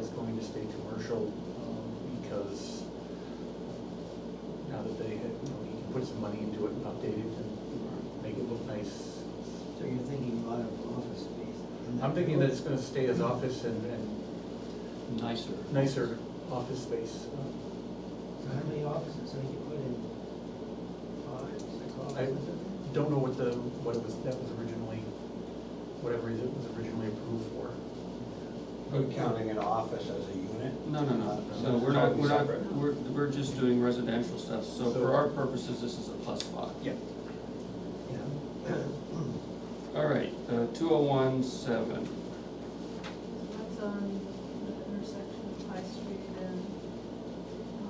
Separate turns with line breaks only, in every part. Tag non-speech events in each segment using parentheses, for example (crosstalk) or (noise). to stay commercial, um, because now that they, had- you know, he can put some money into it and update it and make it look nice.
So you're thinking a lot of office space? in that
I'm thinking that it's
building?
gonna stay as office and, and
nicer.
nicer office space. Uh,
So how many offices are you putting? Five, six
Uh, I
offices?
don't know what the, what it was, that was originally, whatever it was originally approved for.
Are we counting an office as a unit?
No, no, no, so we're not, we're not, we're, we're just doing residential stuff, so for our purposes, this is a plus five.
Yeah.
All right, uh, two oh one seven,
That's on the intersection of High Street and,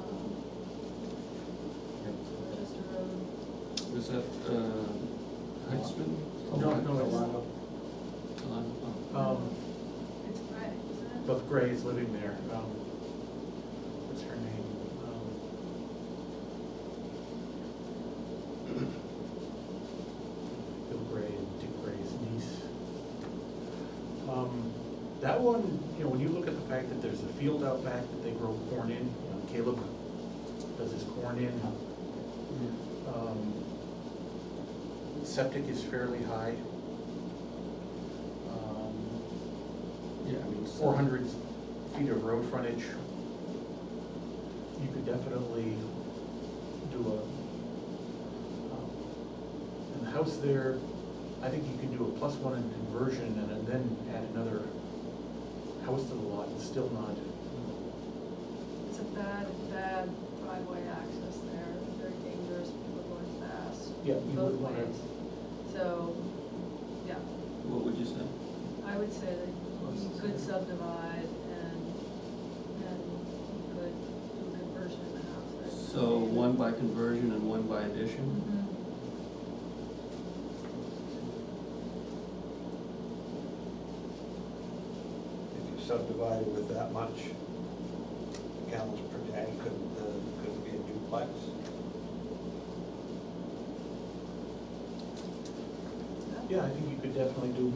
um, just a road.
is that, uh, Heitzman?
No, no, it's,
Alano,
um,
It's gray, isn't it?
Beth Gray is living there, um, what's her name? Um, Um, (coughs) Bill Gray and Dick Gray's niece. Um, that one, you know, when you look at the fact that there's a field out back that they grow corn in, you know, Caleb does his corn in. Um, Septic is fairly high. Um,
oh, Yeah, I mean. so-
four hundred feet of road frontage, you could definitely do a, um, and the house there, I think you could do a plus one in conversion and then add another house to the lot and still not,
It's a bad, bad driveway access there, It's very dangerous, people are going fast.
Yeah, you
both
would wanna-
ways. So, yeah,
What would you say?
I would say that you could subdivide and, and you could do a conversion in the house. there.
So one by conversion and one by addition?
Mhm.
If you subdivided with that much gallons per day, couldn't, uh, couldn't be a duplex?
yeah, I think you could definitely do,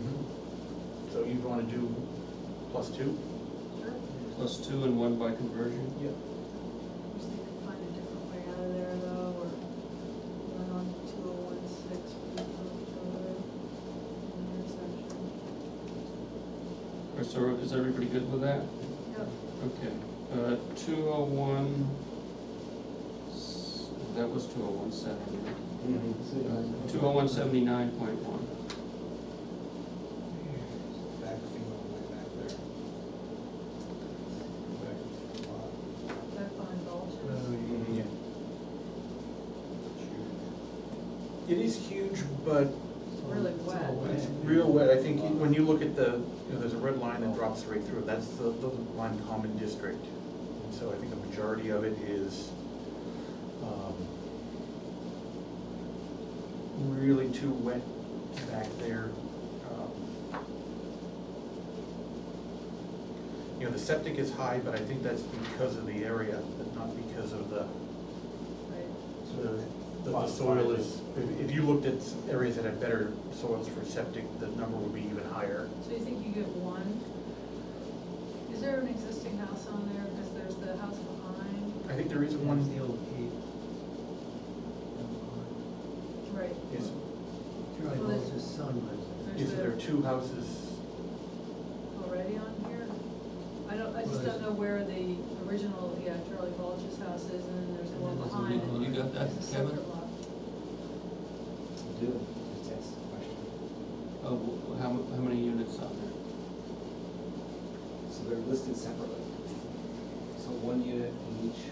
so you'd wanna do plus two?
Sure.
Plus two and one by conversion?
Yeah.
Wish they could find a different way out of there though, or run on two oh one six with each other in the intersection.
Or so, is everybody good with that?
Yep.
Okay, uh, two oh one, that was two oh one seventy. Mm-hmm. Two oh one seventy-nine point one.
Backfield, way back there. Back lot.
That behind Vulture's.
Yeah. It is huge, but
It's really wet.
It's real wet, I think, when you look at the, you know, there's a red line that drops right through, it. that's the, the Lime Common District. And so I think a majority of it is, um, really too wet back there. Um, You know, the septic is high, but I think that's because of the area, but not because of the,
Right.
the, the- the
Fine,
soil
fine.
is, if- if you looked at s- areas that have better soils for septic, the number would be even higher.
So you think you get one? Is there an existing house on there? Because there's the house behind.
I think there is
One's
one,
the old cave.
Right.
is,
Charlie
Well, there's-
Moses' son lives there.
There's
is there
the-
two houses?
already on here? I don't, I
Well,
just
there's-
don't know where the original, yeah, Charlie Vulture's house is and then there's the one behind. it.
You got that,
There's a
Kevin?
separate lot.
Do, just ask the question.
Of wh- how, mu- how many units on there?
So they're listed separately. So one unit in each,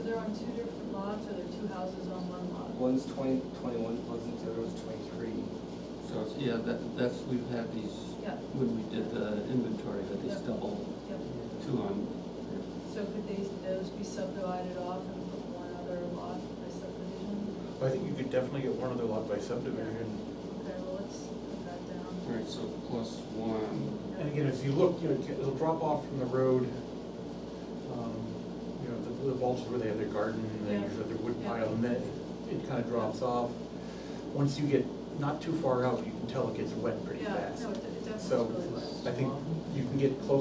So they're on two different lots, or they're two houses on one lot?
one's twenty, twenty-one plugs into the other one's twenty-three.
So, it's- yeah, that, that's, we've had these,
Yeah,
when we did the inventory, that these
Yeah.
double
yeah.
two on,
So could these, those be subdivided off and put one other lot by subdivision?
I think you could definitely get one other lot by subdivision.
Okay, well, let's put that down.
all right, so plus one,
And again, if you look, you know, it'll drop off from the road. um, You know, the, the bulges where they have their garden, and they
Yeah.
usually have their wood
Yeah.
pile, and then it kind of drops off. Once you get not too far out, you can tell it gets wet pretty
Yeah,
fast.
no, it it definitely is
So,
really wet.
I think you can get close